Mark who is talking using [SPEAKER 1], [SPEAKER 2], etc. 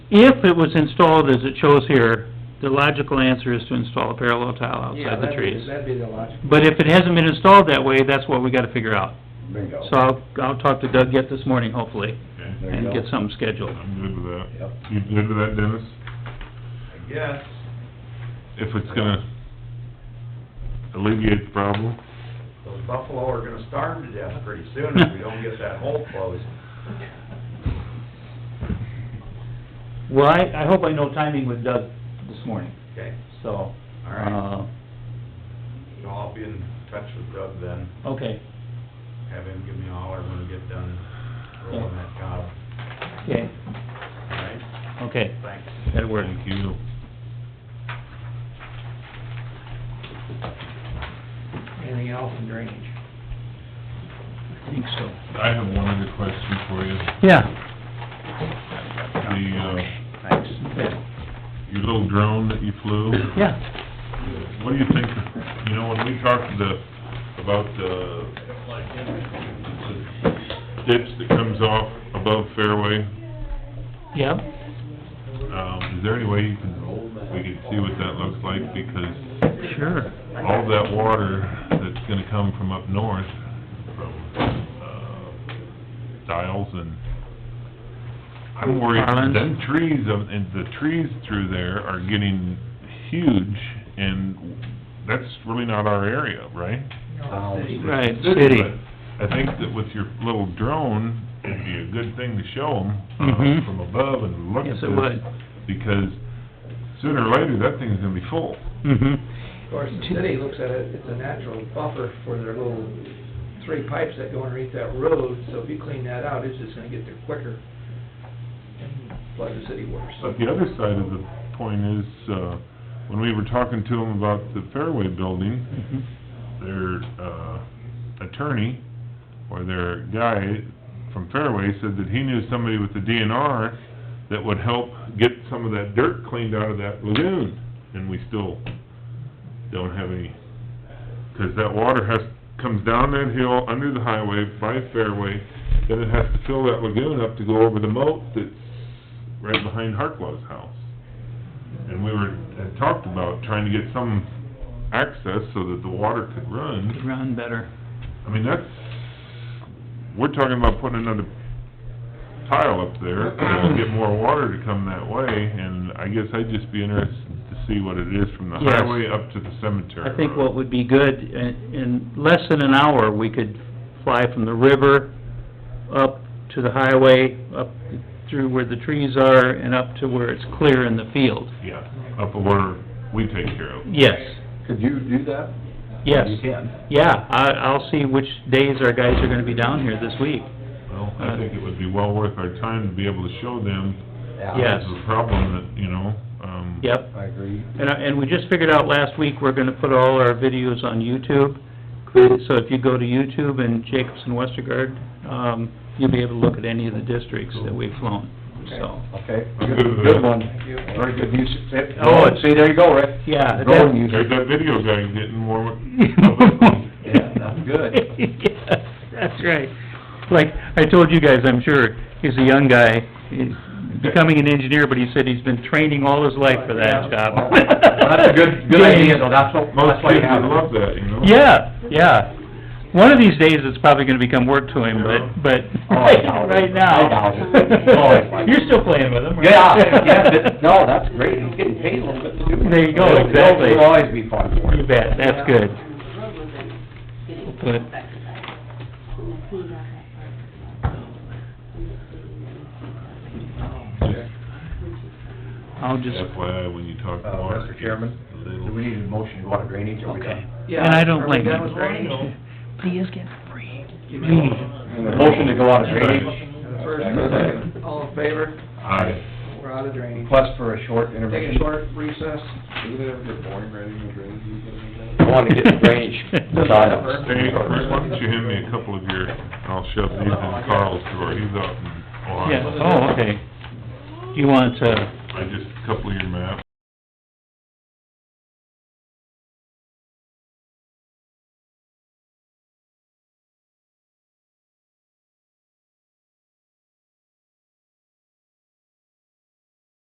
[SPEAKER 1] If it was installed as it shows here, the logical answer is to install a parallel tile
[SPEAKER 2] Yeah,
[SPEAKER 1] outside
[SPEAKER 2] that'd
[SPEAKER 1] the
[SPEAKER 2] be-
[SPEAKER 1] trees.
[SPEAKER 2] That'd be the logical,
[SPEAKER 1] But if it hasn't been installed that way, that's what we gotta figure out.
[SPEAKER 3] Bingo.
[SPEAKER 1] So I'll, I'll talk to Doug yet this morning, hopefully,
[SPEAKER 3] There
[SPEAKER 1] and
[SPEAKER 3] you
[SPEAKER 1] get
[SPEAKER 3] go.
[SPEAKER 1] something scheduled.
[SPEAKER 4] I'm good with that.
[SPEAKER 3] Yep.
[SPEAKER 4] You good with that, Dennis?
[SPEAKER 5] I guess.
[SPEAKER 4] If it's gonna alleviate the problem?
[SPEAKER 5] Those buffalo are gonna starve to death pretty soon if we don't get that hole closed.
[SPEAKER 1] Well, I, I hope I know timing with Doug this morning,
[SPEAKER 5] Okay,
[SPEAKER 1] so,
[SPEAKER 5] all right.
[SPEAKER 1] uh,
[SPEAKER 5] So I'll be in touch with Doug then,
[SPEAKER 1] okay,
[SPEAKER 5] have him give me a holler when we get done rolling that job.
[SPEAKER 1] okay,
[SPEAKER 5] All right,
[SPEAKER 1] okay,
[SPEAKER 5] thanks.
[SPEAKER 1] that'll work.
[SPEAKER 4] Thank you.
[SPEAKER 2] anything else in drainage?
[SPEAKER 1] I think so.
[SPEAKER 4] I have one other question for you.
[SPEAKER 1] Yeah.
[SPEAKER 4] The, uh,
[SPEAKER 1] Thanks.
[SPEAKER 4] your little drone that you flew?
[SPEAKER 1] Yeah,
[SPEAKER 4] What do you think, you know, when we talked the, about the the ditch that comes off above fairway,
[SPEAKER 1] yeah.
[SPEAKER 4] um, is there any way you can, we can see what that looks like? Because
[SPEAKER 1] Sure.
[SPEAKER 4] all that water that's gonna come from up north, from, uh, Dials and, I'm worried,
[SPEAKER 1] Marlins.
[SPEAKER 4] them trees, of- and the trees through there are getting huge, and that's really not our area, right?
[SPEAKER 2] No, city.
[SPEAKER 1] Right, city.
[SPEAKER 4] But I think that with your little drone, it'd be a good thing to show them
[SPEAKER 1] Mhm.
[SPEAKER 4] from above and look at
[SPEAKER 1] Yes,
[SPEAKER 4] this.
[SPEAKER 1] it would.
[SPEAKER 4] Because sooner or later, that thing's gonna be full.
[SPEAKER 1] Mm-hmm.
[SPEAKER 2] Of course, the city looks at it, it's a natural buffer for their little three pipes that go underneath that road, so if you clean that out, it's just gonna get there quicker and flood the city worse.
[SPEAKER 4] But the other side of the point is, uh, when we were talking to them about the Fairway building,
[SPEAKER 1] Mm-hmm.
[SPEAKER 4] their, uh, attorney, or their guy from Fairway said that he knew somebody with the DNR that would help get some of that dirt cleaned out of that lagoon, and we still don't have any, 'cause that water has, comes down that hill, under the highway, by Fairway, then it has to fill that lagoon up to go over the moat that's right behind Hartlow's house. And we were, had talked about trying to get some access so that the water could run.
[SPEAKER 1] Run better.
[SPEAKER 4] I mean, that's, we're talking about putting another tile up there, that'll get more water to come that way, and I guess I'd just be interested to see what it is from the
[SPEAKER 1] Yes.
[SPEAKER 4] highway up to the cemetery.
[SPEAKER 1] I think
[SPEAKER 4] road.
[SPEAKER 1] what would be good, in, in less than an hour, we could fly from the river up to the highway, up through where the trees are, and up to where it's clear in the field.
[SPEAKER 4] Yeah, up where we take care of.
[SPEAKER 1] Yes,
[SPEAKER 3] Could you do that?
[SPEAKER 1] yes.
[SPEAKER 3] You can.
[SPEAKER 1] Yeah, I, I'll see which days our guys are gonna be down here this week.
[SPEAKER 4] Well,
[SPEAKER 1] uh,
[SPEAKER 4] I think it would be well worth our time to be able to show them
[SPEAKER 1] Yes.
[SPEAKER 4] the problem that, you know, um...
[SPEAKER 1] Yep.
[SPEAKER 3] I agree.
[SPEAKER 1] And, I- and we just figured out last week, we're gonna put all our videos on YouTube. So if you go to YouTube and Jacobson Westergaard, um, you'll be able to look at any of the districts that we've flown, so.
[SPEAKER 3] Okay,
[SPEAKER 4] I'm good with
[SPEAKER 3] good
[SPEAKER 4] that.
[SPEAKER 3] one.
[SPEAKER 2] Thank you.
[SPEAKER 3] Very good use.
[SPEAKER 1] Oh, it's-
[SPEAKER 3] See, there you go, Rick.
[SPEAKER 1] Yeah,
[SPEAKER 3] Go
[SPEAKER 1] that-
[SPEAKER 3] and use
[SPEAKER 4] There's
[SPEAKER 3] it.
[SPEAKER 4] that video guy getting more...
[SPEAKER 3] Yeah, that's good.
[SPEAKER 1] Yes, that's right. Like, I told you guys, I'm sure, he's a young guy, he's becoming an engineer, but he said he's been training all his life for that job.
[SPEAKER 3] That's a good, good idea, though, that's what,
[SPEAKER 4] Most
[SPEAKER 3] that's why you
[SPEAKER 4] kids
[SPEAKER 3] have
[SPEAKER 4] would
[SPEAKER 3] it.
[SPEAKER 4] love that, you know?
[SPEAKER 1] Yeah, yeah. One of these days, it's probably gonna become work to him, but, but,
[SPEAKER 3] Oh, I doubt it.
[SPEAKER 1] right
[SPEAKER 3] I
[SPEAKER 1] now.
[SPEAKER 3] doubt it. Oh, it's like-
[SPEAKER 1] You're still playing with him, right?
[SPEAKER 3] Yeah, yeah, but, no, that's great, he's getting paid a little bit to do it.
[SPEAKER 1] There you go,
[SPEAKER 3] It'll-
[SPEAKER 1] exactly.
[SPEAKER 3] It'll always be fun for
[SPEAKER 1] You
[SPEAKER 3] you.
[SPEAKER 1] bet, that's good.
[SPEAKER 6] road wasn't getting
[SPEAKER 1] Good.
[SPEAKER 6] affected by it. And the cleaned out that part.
[SPEAKER 3] Uh,
[SPEAKER 1] I'll just,
[SPEAKER 4] FYI, when you talk
[SPEAKER 3] Uh,
[SPEAKER 4] water...
[SPEAKER 3] Mr. Chairman,
[SPEAKER 4] it's a
[SPEAKER 3] do
[SPEAKER 4] little-
[SPEAKER 3] we need a motion to go out of drainage, or we
[SPEAKER 1] okay.
[SPEAKER 3] done?
[SPEAKER 2] Yeah,
[SPEAKER 1] And I don't
[SPEAKER 2] are we
[SPEAKER 1] blame
[SPEAKER 2] done with
[SPEAKER 1] you.
[SPEAKER 2] drainage?
[SPEAKER 1] Please get free.
[SPEAKER 2] You mean-
[SPEAKER 3] Motion to go out of drainage,
[SPEAKER 2] And the First, and the second, all in favor,
[SPEAKER 4] Aye.
[SPEAKER 2] we're out of drainage.
[SPEAKER 3] request for a short
[SPEAKER 2] Take
[SPEAKER 3] intermission.
[SPEAKER 2] a short recess.
[SPEAKER 7] Doesn't it ever get boring writing the drainage easement?
[SPEAKER 3] I wanna get the drainage done.
[SPEAKER 4] Hey, Rick, why don't you hand me a couple of your, I'll shove these in Carl's drawer, he's out in Ohio.
[SPEAKER 1] Oh, Yeah, oh, okay. Do you want, uh,
[SPEAKER 4] I just, a couple of your maps.